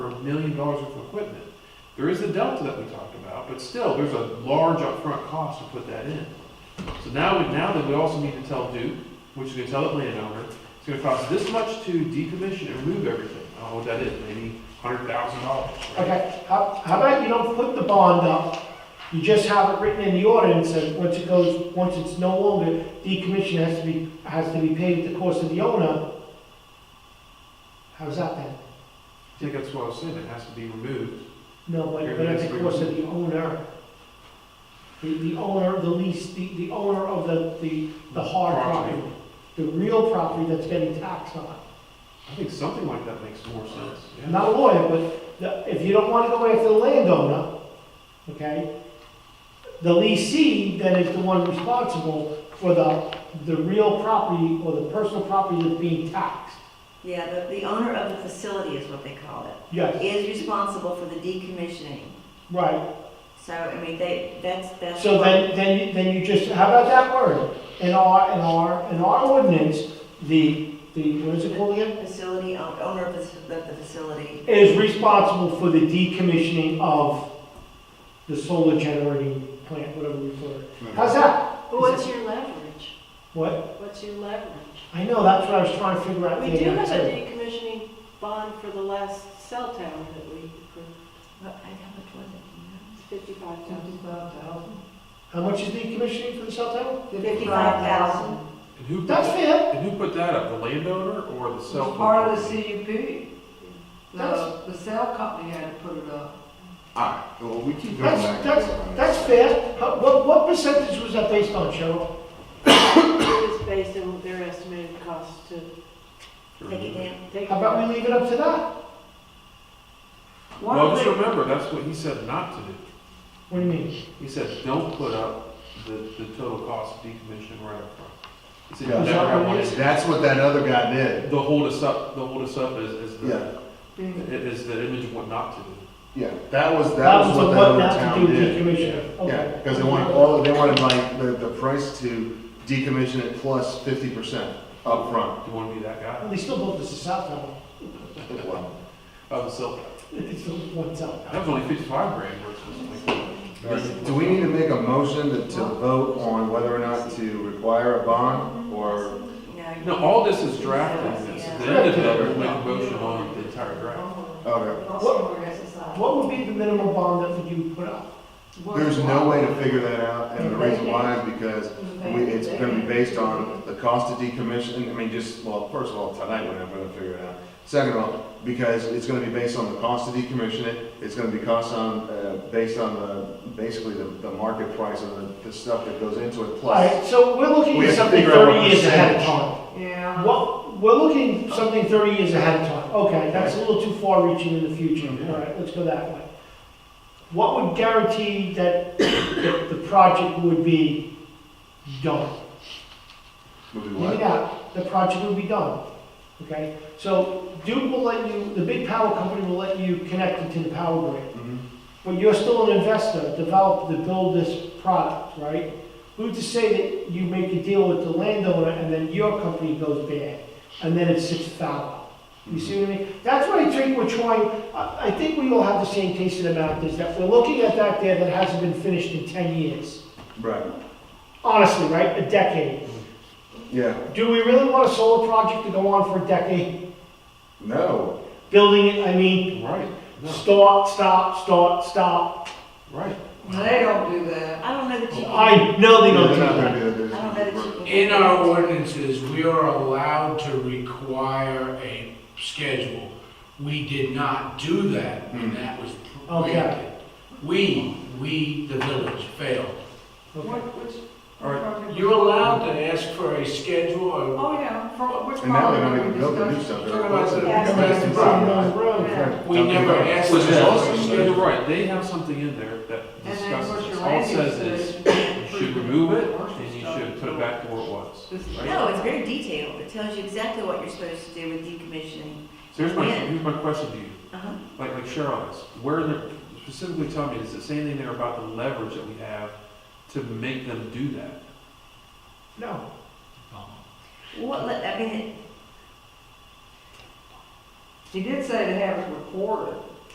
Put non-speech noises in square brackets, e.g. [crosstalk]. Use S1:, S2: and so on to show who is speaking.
S1: a million dollars worth of equipment. There is a delta that we talked about, but still, there's a large upfront cost to put that in. So now, we- now that we also need to tell Duke, which is gonna tell the landowner, it's gonna cost this much to decommission and remove everything. I don't know what that is, maybe hundred thousand dollars, right?
S2: Okay, how, how about you don't put the bond up? You just have it written in the ordinance that once it goes, once it's no longer, decommission has to be, has to be paid at the cost of the owner. How's that then?
S1: I think that's what I was saying, it has to be removed.
S2: No, but, but at the cost of the owner. The, the owner, the lease, the, the owner of the, the, the hard property, the real property that's getting taxed on.
S1: I think something like that makes more sense,
S2: I'm
S1: yeah.
S2: not a lawyer, but the- if you don't want to go after the landowner, okay, the leasing then is the one responsible for the, the real property or the personal property that's being taxed.
S3: Yeah, the, the owner of the facility is what they call it,
S2: Yes,
S3: is responsible for the decommissioning.
S2: right.
S3: So, I mean, they, that's, that's.
S2: So then, then, you- then you just, how about that word? In our, in our, in our ordinance, the, the, what is it called again?
S3: Facility, own- owner of the, of the facility,
S2: Is responsible for the decommissioning of the solar generating plant, whatever we call it. How's that?
S4: But what's your leverage?
S2: What?
S4: What's your leverage?
S2: I know, that's what I was trying to figure out.
S4: We
S2: the
S4: do
S2: other
S4: have a
S2: day.
S4: decommissioning bond for the last cell tower that we approved,
S3: what, I, how much was it?
S4: fifty-five thousand.
S2: How much is decommissioning for the cell tower?
S3: Fifty-five thousand.
S1: And who, put
S2: That's
S1: that-
S2: fair.
S1: and who put that up, the landowner or the cell?
S5: It was
S1: phone
S5: part of the E
S1: company?
S5: CUP.
S2: That's-
S5: The, the cell company had to put it up.
S6: Alright, well, we keep going
S2: That's,
S6: back.
S2: that's, that's fair. How- What, what percentage was that based on, Cheryl?
S4: It was based on their estimated cost to
S3: Take it down.
S4: take.
S2: How about we leave it up to that?
S5: One
S1: Well,
S5: of
S1: just
S5: the,
S1: remember, that's what he said not to do.
S2: What do you mean?
S1: He said, don't put up the, the total cost of decommissioning right up front. He said,
S6: Yeah.
S1: you never have one.
S2: Is
S6: That's what that other guy did.
S1: The hold us up, the hold us up is, is
S6: Yeah.
S1: the, is the image of what not to do.
S6: Yeah, that was, that was what
S2: the
S6: that
S2: what
S6: other
S2: not to
S6: town
S2: do
S6: did.
S2: decommissioning.
S6: Yeah,
S2: Okay.
S6: because they wanted all, they wanted like the, the price to decommission it plus fifty percent upfront.
S1: Do you want to be that guy?
S2: Well, They still built this as a cell tower. [laughs]
S6: Wow.
S1: Of the cell tower.
S2: It's still one cell
S1: That
S2: tower.
S1: was only fifty-five grand versus like.
S6: Do we need to make a motion to, to vote on whether or not to require a bond or?
S1: No, all this is drafting this. At the end of it, we make a motion on the entire draft.
S6: Okay,
S2: What would be the minimum bond that would you put up?
S6: there's no way to figure that out, and the reason why is because we, it's gonna be based on the cost of decommission, I mean, just, well, first of all, tonight we're not gonna figure it out. Second of all, because it's gonna be based on the cost to decommission it, it's gonna be cost on, uh, based on the, basically the, the market price of the, the stuff that goes into it,
S2: All
S6: plus.
S2: right, so we're looking
S6: We
S2: at
S6: have to
S2: something
S6: figure out what
S2: thirty years ahead of
S6: percentage.
S2: time.
S5: yeah.
S2: Well, we're looking something 30 years ahead of time. Okay, that's a little too far reaching in the future. All right, let's go that way. What would guarantee that the the project would be done?
S6: Would be
S2: Leave it
S6: what?
S2: out, the project would be done, okay? So Duke will let you, the big power company will let you connect into the power grid.
S6: Mhm.
S2: But you're still an investor, develop, to build this product, right? Who's to say that you make a deal with the landowner and then your company goes bad, and then it sits foul? You see what I mean? That's what I think we're trying, I, I think we all have the same taste in the mouth, is that we're looking at that there that hasn't been finished in ten years.
S6: Right,
S2: Honestly, right, a decade.
S6: yeah,
S2: Do we really want a solar project to go on for a decade?
S6: no,
S2: Building it, I mean,
S1: Right, no,
S2: start, stop, start, stop.
S1: right.
S5: They don't do that.
S3: I don't know that you. can-
S2: I know they
S6: they're
S2: don't do
S6: not
S2: that.
S6: gonna do
S3: I don't know that
S6: that.
S3: you. can-
S7: In our ordinances, we are allowed to require a schedule. We did not do that, and
S6: Mm-hmm.
S7: that was
S2: Okay.
S7: prohibited. We, we, the village, failed.
S5: What, which?
S7: All
S5: right,
S7: You're allowed to ask for a schedule or
S5: Oh, yeah, from which
S6: And now they're
S5: property
S6: not
S5: are we
S6: even building new
S5: discussing?
S6: stuff.
S7: Talking about the
S6: They're replacing property.
S7: We never asked
S1: Which is
S7: Yeah.
S1: also, you're right, they have something in there that
S5: And then of
S1: discusses,
S5: course your
S1: this. all it
S5: land
S1: says
S5: use.
S1: is, you
S5: is-
S1: should remove it, and you should put it back to where it was.
S5: This is-
S1: Right?
S3: No, it's very detailed. It tells you exactly what you're supposed to do with decommissioning.
S1: So here's my,
S3: Yeah.
S1: here's my question to you.
S3: Uh-huh.
S1: like like Cheryl asked, where in the, specifically tell me, does it say anything there about the leverage that we have to make them do that?
S2: No.
S3: What, let- I mean,
S5: He did say to have it recorded.